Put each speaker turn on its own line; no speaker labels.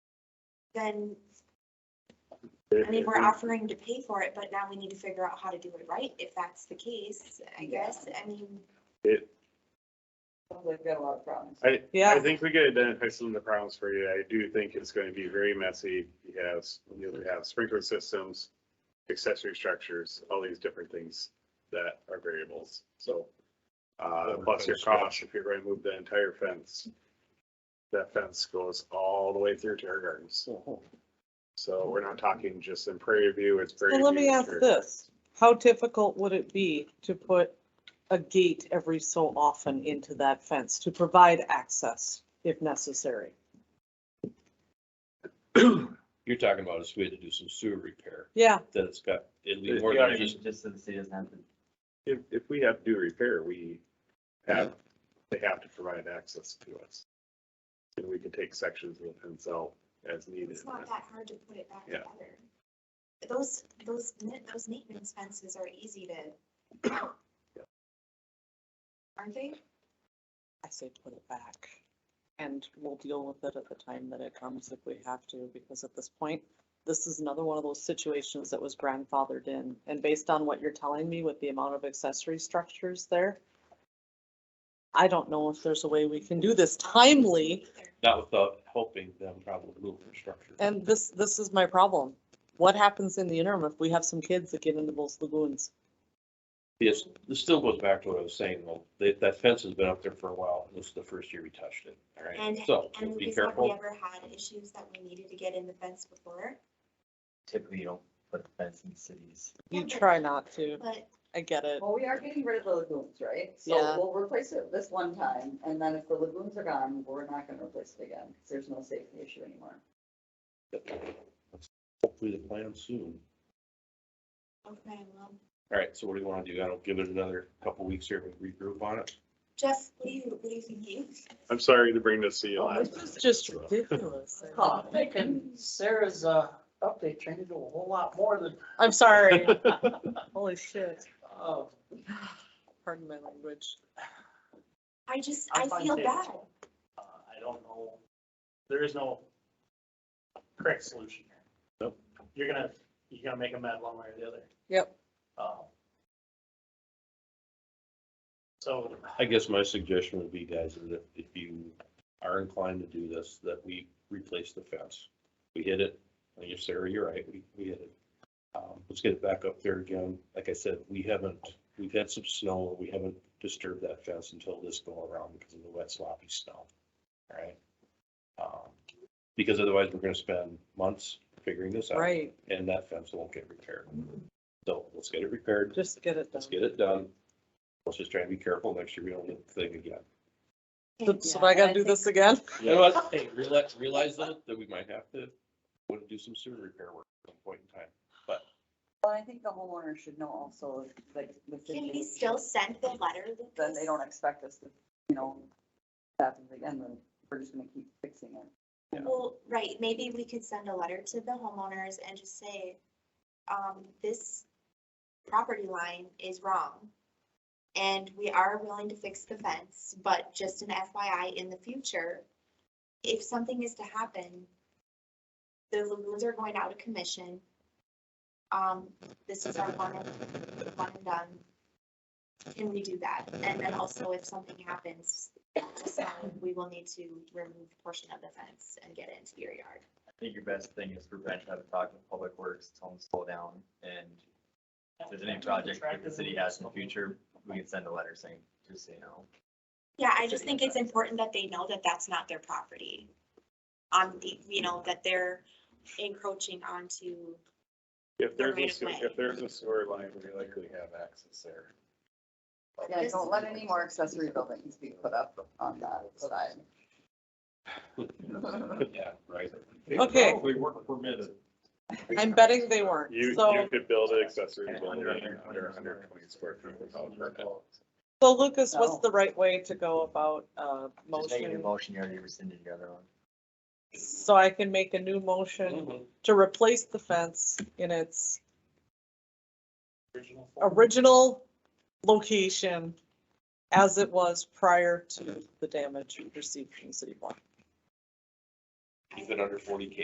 then, I mean, we're offering to pay for it, but now we need to figure out how to do it right, if that's the case, I guess, I mean.
It,
We've got a lot of problems.
I, I
Yeah,
think we could identify some of the problems for you. I do think it's going to be very messy. You have, you have sprinkler systems, accessory structures, all these different things that are variables. So, uh, plus your cost, if you remove the entire fence, that fence goes all the way through to our gardens. So we're not talking just in Prairie View, it's
so
Prairie View.
let me ask
or-
this, how difficult would it be to put a gate every so often into that fence to provide access if necessary?
You're talking about if we had to do some sewer repair,
Yeah,
then it's got, it'd be
It's
more
gotta
than
be-
just,
Just so the city doesn't have to.
If, if we have to do repair, we have, they have to provide access to us. And we can take sections of the fence out as needed.
It's not that hard to put it back
Yeah.
together. Those, those, ma- those maintenance fences are easy to. Aren't they?
I say put it back. And we'll deal with it at the time that it comes if we have to, because at this point, this is another one of those situations that was grandfathered in. And based on what you're telling me with the amount of accessory structures there, I don't know if there's a way we can do this timely,
not without helping them probably move their structure.
and this, this is my problem. What happens in the interim if we have some kids that get into those lagoons?
It's, this still goes back to what I was saying, well, that, that fence has been up there for a while, and this is the first year we touched it, all
And,
right? So,
and
be
is have we
careful,
ever had issues that we needed to get in the fence before?
typically you don't put a fence in cities.
You try not to,
But
I get it.
Well, we are getting rid of the lagoons, right?
Yeah.
So we'll replace it this one time, and then if the lagoons are gone, we're not gonna replace it again, because there's no safety issue anymore.
hopefully the plan soon.
Okay, well,
All right, so what do you wanna do? I don't give it another couple weeks here, we regroup on it.
Jeff, what do you, what do you think?
I'm sorry to bring this to
Oh,
you last.
This is just ridiculous.
Huh.
I'm thinking Sarah's, uh, update trying to do a whole lot more than,
I'm sorry. Holy shit,
uh,
pardon my language.
I just, I
I find
feel
it-
bad.
uh, I don't know. There is no correct solution here.
Nope.
You're gonna, you're gonna make a mad one way or the other.
Yep.
Um, So,
I guess my suggestion would be, guys, is that if you are inclined to do this, that we replace the fence. We hit it, I guess, Sarah, you're right, we, we hit it. Um, let's get it back up there again. Like I said, we haven't, we've had some snow, we haven't disturbed that fence until this go around because of the wet sloppy snow. Alright? Um, because otherwise we're gonna spend months figuring this out.
Right,
And that fence won't get repaired. So let's get it repaired.
just get it done.
Let's get it done. Let's just try and be careful, make sure we don't hit the thing again.
So- So I gotta do this again?
You know what, hey, realize, realize that, that we might have to, want to do some sewer repair work at some point in time.
Well, I think the homeowner should know also, like, the
Can
city,
we still send the letter? with
that they
this?
don't expect us to, you know, happens again, then we're just gonna keep fixing it.
Well, right, maybe we could send a letter to the homeowners and just say, um, this property line is wrong. And we are willing to fix the fence, but just an FYI, in the future, if something is to happen, the lagoons are going out of commission. Um, this is our one and, one and done. Can we do that? And then also if something happens, just know Um, we will need to remove a portion of the fence and get it into your yard.
I think your best thing is for Brent to have a talk with Public Works, tell them to slow down, and if there's any project that the city has in the future, we can send a letter saying, just say no.
Yeah, I just think it's important that they know that that's not their property. On, the- you know, that they're encroaching onto,
If there's
Right
a,
of
sewer-
way.
if there's a sewer line, we likely have access there.
Yeah, don't let any more accessory buildings be put up on that side.
Yeah, right.
Okay.
We work permitted.
I'm betting they weren't,
You,
so,
you could build an accessory building
Under-
under, under hundred twenty square feet without permit.
so Lucas, what's
No.
the right way to go about, uh,
Just make a new
motion?
motion, you already rescinded the other one.
So I can make a new
Mm.
motion to replace the fence in its
original. form.
original location as it was prior to the damage received from City Block.
Keep it under forty K